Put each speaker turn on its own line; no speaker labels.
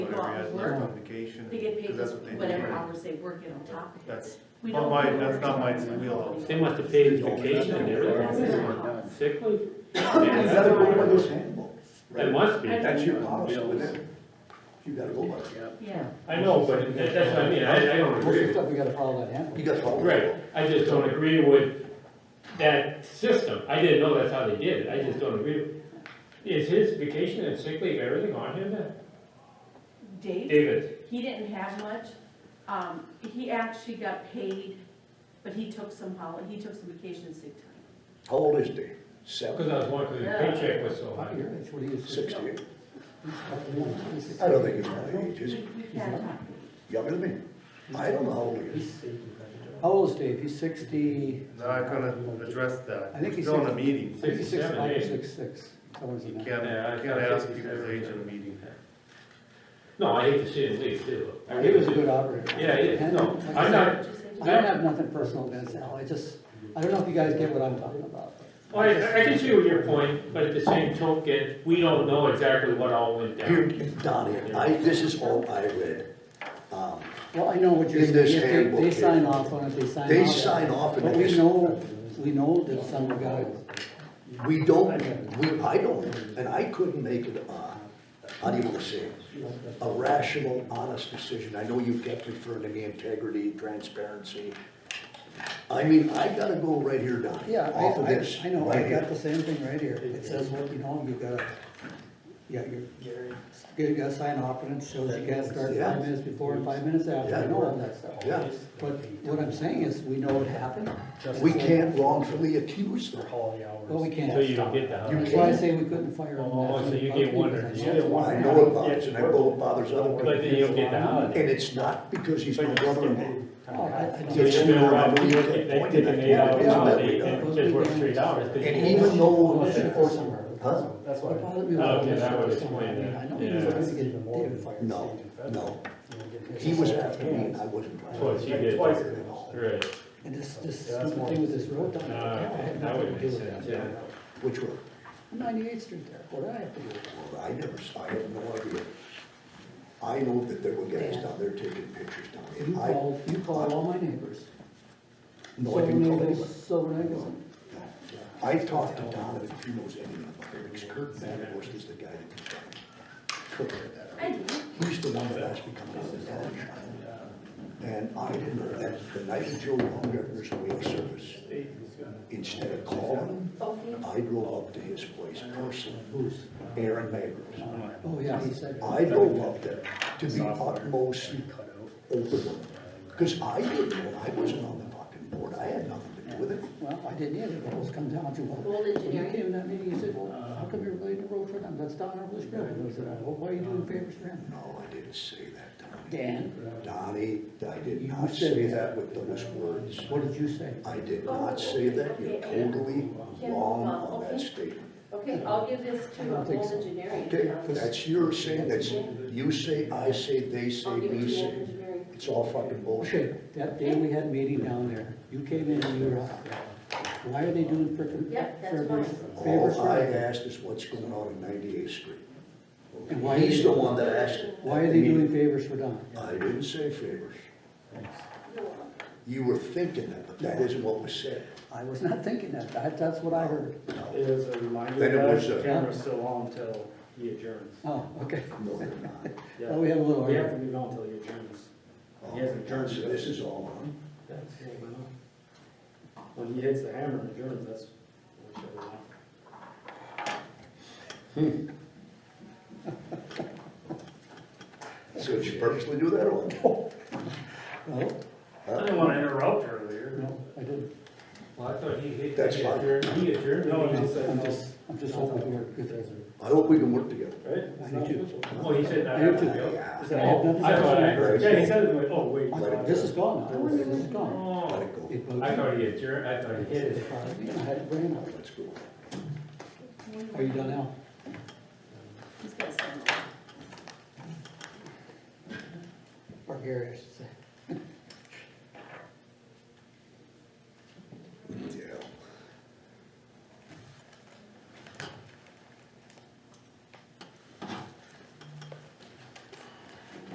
they're
work,
on vacation,
they get paid
because that's what they do.
whatever
right?
hours they work in on top of it.
That's,
We
not
don't
my-
work
that's not my
overtime.
wheelhouse.
They must have paid vacation and everything, sick leave.
Is that a understandable?
It must be.
That's your policy with them. You gotta go by it.
Yeah,
I know, but that- that's what I mean, I, I don't
Most of
agree.
the
with-
stuff,
We gotta follow that handbook.
you gotta follow.
Right, I just don't agree with that system. I didn't know that's how they did it, I just don't agree. with Is his vacation and sick leave, everything on him then?
Dave,
David,
he didn't have much, um, he actually got paid, but he took some holiday, he took some vacation sick time.
How old is Dave?
because
Seven,
I was wondering, the
Yeah.
paycheck was so high.
That's what he is.
sixty-eight?
He's-
I don't think he's my age, is
We,
he?
we had,
Younger than me? I don't know how old he is.
How old is Dave? He's sixty,
Not gonna address that,
I think
we're
he
still in
said-
a meeting.
sixty-six,
Sixty-seven,
five,
eh?
six-six, someone's
You
in
can't,
that.
Yeah, I
you can't
thought
ask
67.
people's age in a meeting.
No, I hate to see him leave too. I
He
really
was a
do.
good operator.
Yeah, he is. No,
And-
I'm not-
did you say?
I don't have nothing personal against Al, I just, I don't know if you guys get what I'm talking about.
Well, I, I can see what your point, but at the same token, we don't know exactly what all went
Here,
down.
Donnie, I, this is all I read. Um,
Well, I know what you're
In
saying,
this
If they-
handbook
they
here.
sign off on it, they sign off.
They sign off and
But
they
we
just-
know, we know that some guys,
We don't, we, I don't, and I couldn't make it, uh, how do you wanna say it? A rational, honest decision. I know you kept referring to me integrity, transparency. I mean, I gotta go right here, Donnie,
yeah,
off of
I, I,
this,
I know,
right
I've got
here.
the same thing right here, it says what you know, and you gotta, yeah, you're, you gotta sign off and it shows you gotta start
Yeah.
five minutes before and five minutes after, I
Yeah.
know all that stuff.
Yeah,
But what I'm saying is, we know what happened,
we can't wrongfully accuse them.
but we can't.
So you don't get that.
You
That's why I
can't.
say we couldn't fire him.
Oh, so you get one or the other one.
I know it bothers, and I know it bothers other people.
But then you'll get the holiday.
And it's not because he's my brother-in-law.
Oh, I- I
So
just-
you've been around, you get that, take an eight hour
Isn't that
holiday
we
and
done?
just work three hours. but
And
you-
even though, huh?
That's
What
why.
bothered me was
Oh, okay,
all this
that would
other stuff.
explain
I mean,
that.
I know he
Yeah.
was going to get David fired.
No, no, he was after me, and I wasn't trying.
Of course, you did.
Twice.
at all.
Right,
And this, this
Yeah, that's
stupid
more-
thing with this road down there,
Ah,
I
okay,
had
that would
nothing to do
make
with
sense,
that.
yeah.
Which one?
Ninety-eighth Street there, what did I have to do with that?
Well, I never saw, I have no idea. I know that there were guys down there taking pictures down there.
You
I-
call, you call all my neighbors.
No, I didn't call
Silver
anybody.
Nagels, Silver Nagels.
No. I talked to Donovan, if he knows anything about it, because Kurt Vanderhorst is the guy that did that. Kurt had that.
I do.
He's the one that asked me coming out of the town. And I didn't know that, the night Joe Baumgartner's away of service, instead of calling
Oh,
him, I drove up to his place personally, Aaron Magrum.
Oh, yeah, he said.
I drove up there to the utmost open, because I didn't know, I wasn't on the fucking board, I had nothing to do with it.
Well, I didn't either, but it was come down to, well,
Old
when you
engineering.
came in that meeting, you said, well, how come you're related to road for them, that's down over this road, and I said, well, why are you doing favors for him?
No, I didn't say that, Donnie.
Dan,
Donnie, I did
You
not
said
say that
that.
with those words.
what did you say?
I did not say that, you're totally wrong on that statement.
Okay, I'll give this
I don't think so.
engineering.
Okay, that's your saying, that's, you say, I say, they say,
I'll give it
we
to Old
say.
Engineering.
It's all fucking
Okay,
bullshit.
Oh, that day we had a meeting down there, you came in and you were out there. Why are they doing frickin'
Yep, that's
favors,
fine.
favors
All I
for him?
asked is what's going on in 98th Street.
And why
He's
they-
the one that asked it.
Why are they doing favors for Don?
I didn't say favors. You were thinking that, but that isn't what was said.
I was not thinking that, that, that's what I heard.
It was a reminder
Then it was,
that
uh,
the camera's still on until he adjourns.
Oh, okay,
No, they're not.
Yeah.
well, we have a little
We have to
argument.
leave it on until he adjourns.
Oh,
He hasn't adjourned
so
yet.
This is all on.
When he hits the hammer and adjourns, that's. what we should have done.
So did you purposely do that or? what?
No,
I didn't want to interrupt earlier.
Oh, no, I didn't,
well, I thought he, he
That's fine.
adjourned, he adjourned.
No, he just said
I'm
no.
just, I'm just hoping we're good there.
I hope we can work together.
Right? It's not
I do too.
official.
Oh, he said not.
I do too.
Yeah,
Is
I
that
have
all?
nothing
I thought I
to
heard.
Yeah, he said it, like, oh, wait.
say. This is gone now,
There
this is gone.
let
Oh,
it go.
It was-
I thought he adjourned, I thought he
It
hit
was
it.
five, you know, I had it ran out.
Let's go.
Are you done now?
He's got some.
Or Gary, I should say.